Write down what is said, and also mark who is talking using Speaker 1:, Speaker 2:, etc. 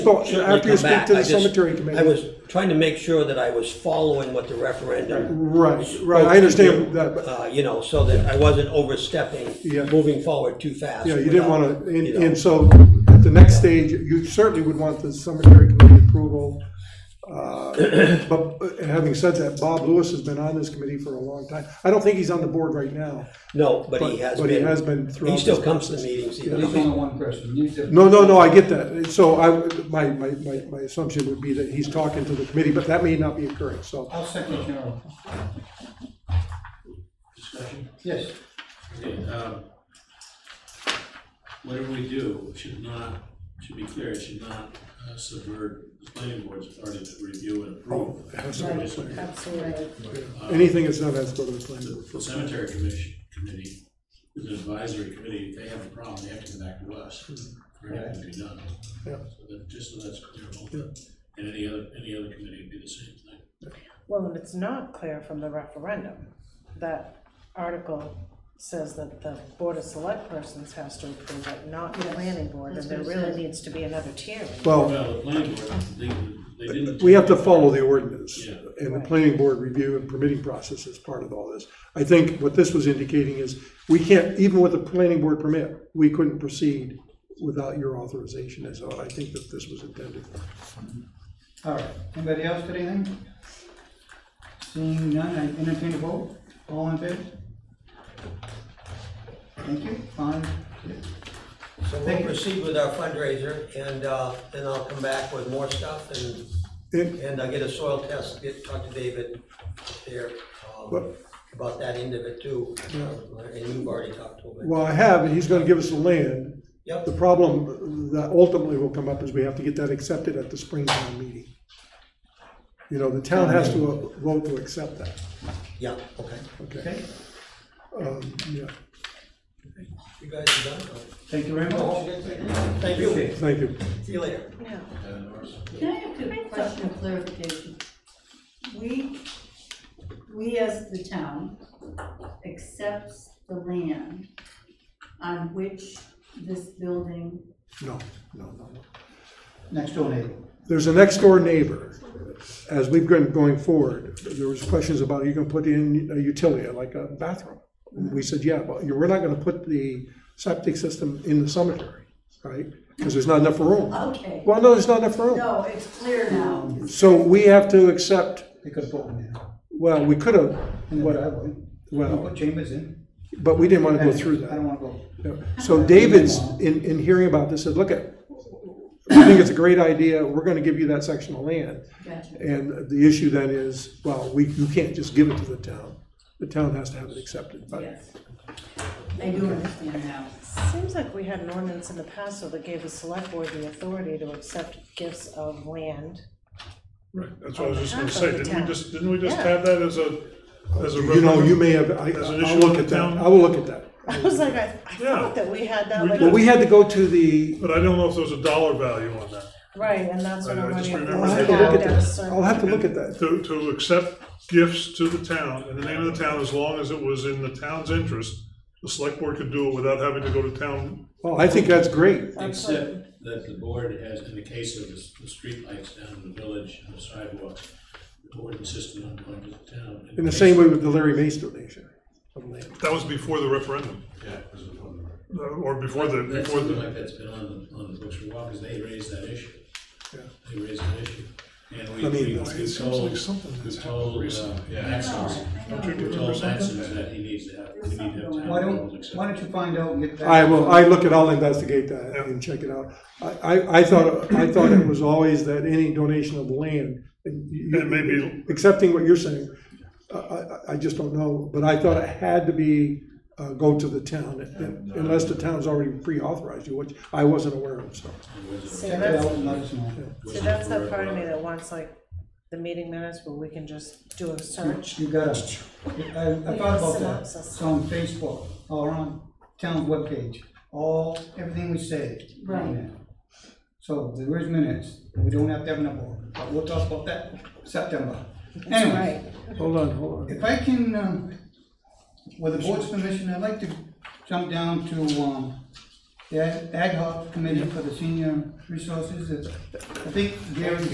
Speaker 1: Well, after you
Speaker 2: come
Speaker 1: speak
Speaker 2: back.
Speaker 1: to
Speaker 2: I
Speaker 1: the
Speaker 2: just-
Speaker 1: cemetery
Speaker 2: I
Speaker 1: committee.
Speaker 2: was trying to make sure that I was following what the referendum.
Speaker 1: Right, right, I understand that, but,
Speaker 2: Uh, you know, so that I wasn't overstepping,
Speaker 1: Yeah.
Speaker 2: moving forward too fast.
Speaker 1: yeah, you didn't
Speaker 2: without,
Speaker 1: wanna, and,
Speaker 2: you know,
Speaker 1: and so, at the next stage, you certainly would want the cemetery committee approval. Uh, But having said that, Bob Lewis has been on this committee for a long time. I don't think he's on the board right now.
Speaker 2: No, but he
Speaker 1: but-
Speaker 2: has been.
Speaker 1: but he has been throughout
Speaker 2: He still
Speaker 1: this
Speaker 2: comes to
Speaker 1: process.
Speaker 2: meetings. he-
Speaker 1: Yeah.
Speaker 3: There's only one person, you did.
Speaker 1: No, no, no, I get that, And so I, my, my, my, my assumption would be that he's talking to the committee, but that may not be occurring, so.
Speaker 3: I'll second your. Yes,
Speaker 4: Okay, um, Whatever we do should not, should be clear, it should not uh, subvert the planning board's authority to review and approve.
Speaker 1: Has to go to the
Speaker 5: Right,
Speaker 1: planning
Speaker 5: absolutely.
Speaker 1: board. Anything that's not, has to go to the planning board.
Speaker 4: The cemetery commission, committee, is an advisory committee, if they have a problem, they have to come back to us. Or it to be done.
Speaker 1: Yeah.
Speaker 4: So that, just so that's clear, also. and any other, any other committee would be the same thing.
Speaker 5: Well, and it's not clear from the referendum. That article says that the Board of Select Persons has to approve it, not the planning board, and there really needs to be another tiering.
Speaker 1: Well,
Speaker 4: Well, the planning board, they, they didn't.
Speaker 1: Oh. We have to follow the ordinance
Speaker 4: Yeah.
Speaker 1: and the planning board review and permitting process is part of all this. I think what this was indicating is, we can't, even with a planning board permit, we couldn't proceed without your authorization is all I think that this was intended.
Speaker 3: all right, anybody else got anything? Seeing none, I entertain a vote, all in favor? Thank you, fine.
Speaker 2: So we'll proceed with our fundraiser and, uh, and I'll come back with more stuff and,
Speaker 1: And,
Speaker 2: and I'll get a soil test, get, talk to David there, um,
Speaker 1: What?
Speaker 2: about that end of it too. And you've already talked to him.
Speaker 1: well, I have, and he's gonna give us the land.
Speaker 2: Yep.
Speaker 1: The problem that ultimately will come up is we have to get that accepted at the spring town meeting. You know, the town has to vote to accept that,
Speaker 2: Yeah, okay.
Speaker 1: okay?
Speaker 3: Okay,
Speaker 1: Um, yeah,
Speaker 2: You guys are done?
Speaker 3: thank you very much.
Speaker 2: Thank you.
Speaker 1: thank you.
Speaker 2: See you later.
Speaker 5: No.
Speaker 6: Can I have a question of clarification? We, we as the town accepts the land on which this building,
Speaker 1: No, no, no, no.
Speaker 3: Next door neighbor,
Speaker 1: there's a next door neighbor. As we've been going forward, there was questions about, are you gonna put in a utility, like a bathroom? And We said, yeah, but you- we're not gonna put the septic system in the cemetery, right? Because there's not enough room.
Speaker 6: okay,
Speaker 1: Well, no, there's not enough room.
Speaker 6: no, it's clear now.
Speaker 1: So we have to accept,
Speaker 3: they could put one in,
Speaker 1: well, we could have,
Speaker 3: in the driveway.
Speaker 1: Well-
Speaker 3: Put chambers in.
Speaker 1: but we didn't wanna go through that.
Speaker 3: I don't wanna go.
Speaker 1: Yeah. So David's, in, in hearing about this, said, look, at, we think it's a great idea, we're gonna give you that section of land.
Speaker 6: Gotcha.
Speaker 1: And the issue then is, well, we, you can't just give it to the town. The town has to have it accepted, but,
Speaker 6: Yes. I do understand now.
Speaker 5: Seems like we had an ordinance in the past though, that gave the select board the authority to accept gifts of land.
Speaker 7: Right, that's what I was just
Speaker 5: On
Speaker 7: gonna
Speaker 5: behalf
Speaker 7: say,
Speaker 5: of the
Speaker 7: didn't we
Speaker 5: town.
Speaker 7: just, didn't we just
Speaker 5: Yeah.
Speaker 7: have that as a, as a.
Speaker 1: you know, you may have, I,
Speaker 7: As
Speaker 1: I'll
Speaker 7: an issue
Speaker 1: look
Speaker 7: with
Speaker 1: at
Speaker 7: the
Speaker 1: that,
Speaker 7: town?
Speaker 1: I will look at that.
Speaker 5: I was like, I, I
Speaker 7: Yeah.
Speaker 5: thought that we had that,
Speaker 7: We
Speaker 5: like,
Speaker 7: did.
Speaker 1: But we had to go to the,
Speaker 7: But I don't know if there was a dollar value on that.
Speaker 5: right, and that's what
Speaker 7: I- I
Speaker 5: I'm
Speaker 7: just
Speaker 5: running.
Speaker 7: remember
Speaker 1: I'll
Speaker 7: that.
Speaker 1: have to look at
Speaker 5: down a
Speaker 1: that,
Speaker 5: certain-
Speaker 1: I'll have to look at that.
Speaker 7: To, to accept gifts to the town, in the name of the town, as long as it was in the town's interest, the select board could do it without having to go to town.
Speaker 1: Well, I think that's great.
Speaker 4: Except that the board has, in the case of the, s- the streetlights down in the village and the sidewalks, the board insisted on going to the town.
Speaker 1: In the same way with the Larry Mace donation of land.
Speaker 7: That was before the referendum,
Speaker 4: Yeah, it was before the-
Speaker 7: uh, or before the,
Speaker 4: That's
Speaker 7: before
Speaker 4: something
Speaker 7: the,
Speaker 4: like that's been on the, on the books for a while, because they raised that issue.
Speaker 1: Yeah.
Speaker 4: They raised that issue. And we,
Speaker 1: I mean,
Speaker 4: we we
Speaker 1: it
Speaker 4: told,
Speaker 7: seems like something that's
Speaker 4: we told,
Speaker 7: happened
Speaker 4: uh,
Speaker 7: recently.
Speaker 4: Maximus,
Speaker 6: No, I know.
Speaker 4: we told Maximus that he needs to have, we need to have town
Speaker 3: Why
Speaker 4: rules
Speaker 3: don't,
Speaker 4: accepted.
Speaker 3: why don't you find out and get back?
Speaker 1: I will, I look at, I'll investigate that and check it out. I, I, I thought, I thought it was always that any donation of land, and you-
Speaker 7: And maybe-
Speaker 1: accepting what you're saying, I, I, I just don't know, but I thought it had to be, uh, go to the town, unless the town's already pre-authorized you, which I wasn't aware of, so.
Speaker 5: See,
Speaker 3: Check it
Speaker 5: that's-
Speaker 3: out and let us know.
Speaker 5: So that's that part of me that wants like the meeting minutes where we can just do a search.
Speaker 3: You got it. I, I thought about that. It's on Facebook, or on town webpage, all, everything we say. is on
Speaker 6: Right.
Speaker 3: there. So there is minutes, we don't have to have another board, but we'll talk about that September. Anyway,
Speaker 1: Hold on, hold on.
Speaker 3: if I can, um, with the board's permission, I'd like to jump down to, um, The Ag Ag Hub Committee for the Senior Resources, is- I think Gary